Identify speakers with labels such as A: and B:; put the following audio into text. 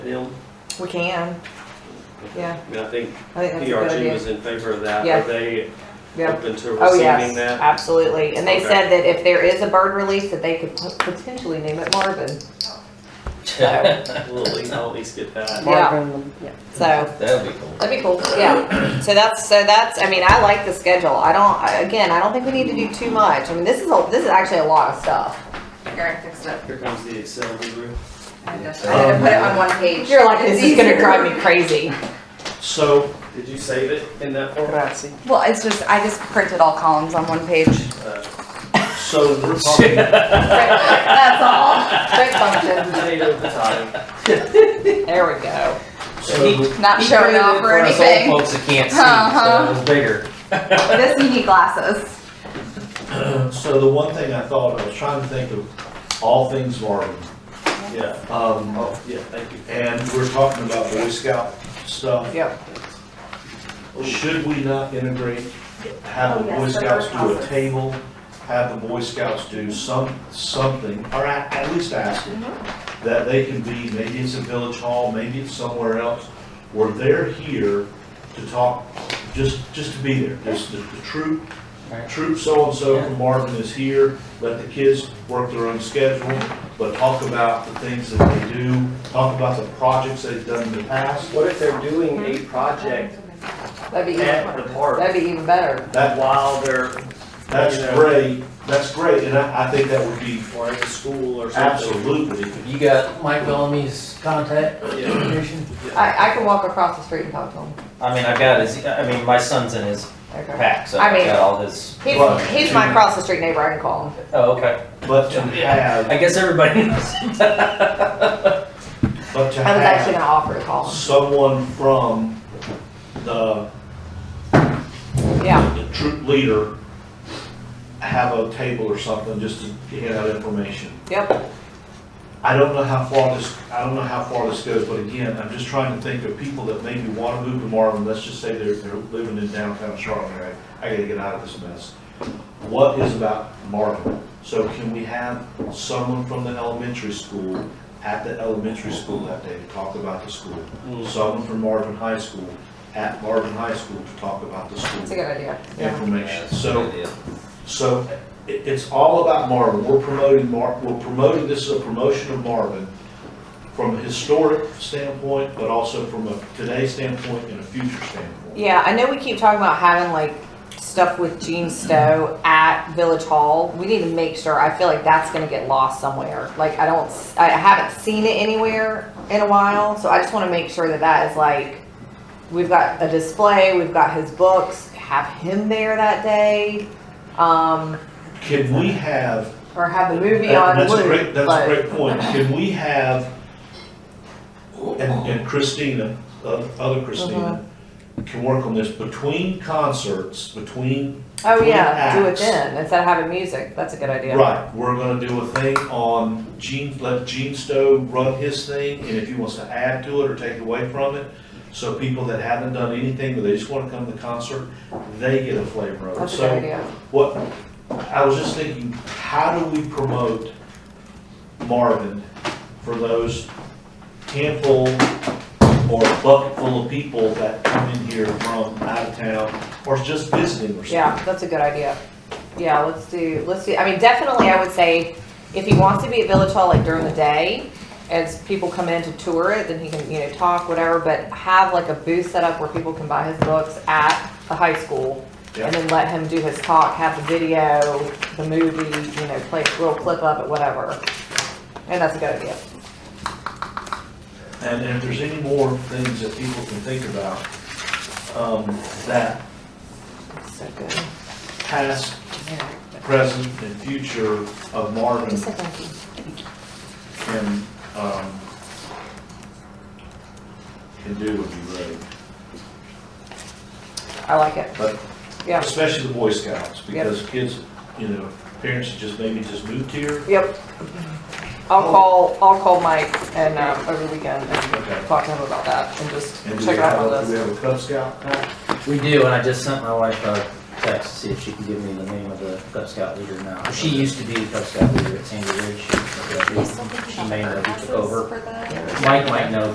A: them?
B: We can, yeah,
A: I mean, I think
B: I think that's a good
A: PRG
B: idea.
A: E was in favor of that.
B: Yeah.
A: Are they
B: Yeah.
A: open to
B: Oh,
A: receiving
B: yes,
A: that?
B: absolutely. And they
A: Okay.
B: said that if there is a bird release, that they could pot- potentially name it Marvin. So,
A: We'll at least, I'll at least get that.
C: Marvin, yeah.
B: so
D: That'd be cool.
B: that'd be cool, yeah. So that's, so that's, I mean, I like the schedule. I don't, I- again, I don't think we need to do too much. I mean, this is, a this is actually a lot of stuff.
E: Here, I fixed it.
A: Here comes the Excel guru.
E: I just- I had to put it on one page.
B: You're like, this
E: It's
B: is gonna
E: easier.
B: drive me crazy.
A: So, did you save it in that format?
C: Grazie.
E: Well, it's just, I just printed all columns on one page.
A: Uh, So, we're talking
E: That's all.
B: Great function.
A: potato at the time.
B: There we go.
A: So,
E: Not showing off or anything.
D: folks that can't see,
E: Uh-huh.
D: so it's bigger.
E: But this, you need glasses.
F: So the one thing I thought, I was trying to think of all things Marvin.
A: yeah,
F: Um,
A: oh, yeah, thank you.
F: and we're talking about Boy Scout stuff.
B: Yep.
F: Should we not integrate, have the
E: Oh,
F: Boy
E: yes, the
F: Scouts do a
E: workhouses.
F: table, have the Boy Scouts do some, something, or at, at least ask them,
E: Mm-hmm.
F: that they can be, maybe it's a village hall, maybe it's somewhere else, where they're here to talk, just, just to be there, just the, the troop,
D: Right.
F: troop so-and-so
D: Yeah.
F: from Marvin is here, let the kids work their own schedule, but talk about the things that they do, talk about the projects they've done in the past,
A: What if they're doing a project
B: That'd be
A: at the
B: even,
A: park
B: that'd be even better.
F: that
A: while they're,
F: That's
A: Yeah.
F: great, that's great, and I, I think that would be
A: or at the school or something?
F: absolutely,
D: You got Mike Bellamy's contact
A: Yeah,
D: information?
A: yeah.
B: I, I can walk across the street and talk to him.
D: I mean, I got his, I mean, my son's in his
B: Okay.
D: pack, so
B: I
D: I
B: mean-
D: got all his,
F: Right.
B: He's, he's my across the street neighbor, I can call him.
D: oh, okay.
F: but to have,
D: I guess everybody knows.
F: but to
B: I was actually
F: have
B: gonna offer to call him.
F: someone from the,
B: Yeah,
F: the troop leader have a table or something just to hand out information.
B: yep,
F: I don't know how far this, I don't know how far this goes, but again, I'm just trying to think of people that maybe wanna move to Marvin, let's just say they're, they're living in downtown Charlotte, right? I gotta get out of this mess. What is about Marvin? So can we have someone from the elementary school, at the elementary school that day to talk about the school? Someone from Marvin High School, at Marvin High School to talk about the
B: it's a
F: school
B: good idea, yeah.
F: information. So
D: Yeah.
F: so it, it's all about Marvin. We're promoting Mar, we're promoting, this is a promotion of Marvin from a historic standpoint, but also from a today standpoint and a future standpoint.
B: Yeah, I know we keep talking about having like stuff with Gene Stowe at Village Hall. We need to make sure, I feel like that's gonna get lost somewhere. Like, I don't, s- I haven't seen it anywhere in a while, so I just wanna make sure that that is like, we've got a display, we've got his books, have him there that day. Um,
F: Can we have,
B: or have the movie on
F: that's a
B: loop,
F: great, that's
B: but-
F: a great point. Can we have, and and Christina, uh, other Christina,
B: Uh-huh.
F: can work on this, between concerts, between,
B: Oh
F: Three
B: yeah, do it
F: acts.
B: then instead of having music. That's a good idea.
F: right, we're gonna do a thing on Gene, let Gene Stowe run his thing, and if he wants to add to it or take away from it, So people that haven't done anything, but they just wanna come to the concert, they get a flavor of it.
B: That's a good
F: So
B: idea.
F: what, I was just thinking, how do we promote Marvin for those handful or bucket full of people that come in here from out of town or just visiting or something?
B: Yeah, that's a good idea. Yeah, let's do. Let's do. I mean, definitely, I would say if he wants to be at Village Hall like during the day, as people come in to tour it, then he can you know talk whatever. But have like a booth set up where people can buy his books at the high school.
F: Yeah.
B: And then let him do his talk, have the video, the movie, you know, play a little clip of it, whatever. And that's a good idea.
F: And if there's any more things that people can think about, um, that
B: So good.
F: past,
B: Yeah.
F: present, and future of Marvin
B: Just a thank you.
F: can, um, can do would be great,
B: I like it.
F: but
B: Yeah.
F: especially the Boy Scouts, because kids, you know, parents that just maybe just moved here.
B: Yep. I'll
F: Oh.
B: call, I'll call Mike and, um, over the weekend
F: Okay.
B: and talk to him about that and just
F: And do
B: check
F: we
B: it out
F: have,
B: on
F: a- do we
B: this.
F: have a Cub Scout?
D: We do, and I just sent my wife a text to see if she could give me the name of the Cub Scout leader now. She used to be the Cub Scout leader at Sandy Ridge. She- She may have took over.
E: For the-
D: Mike might know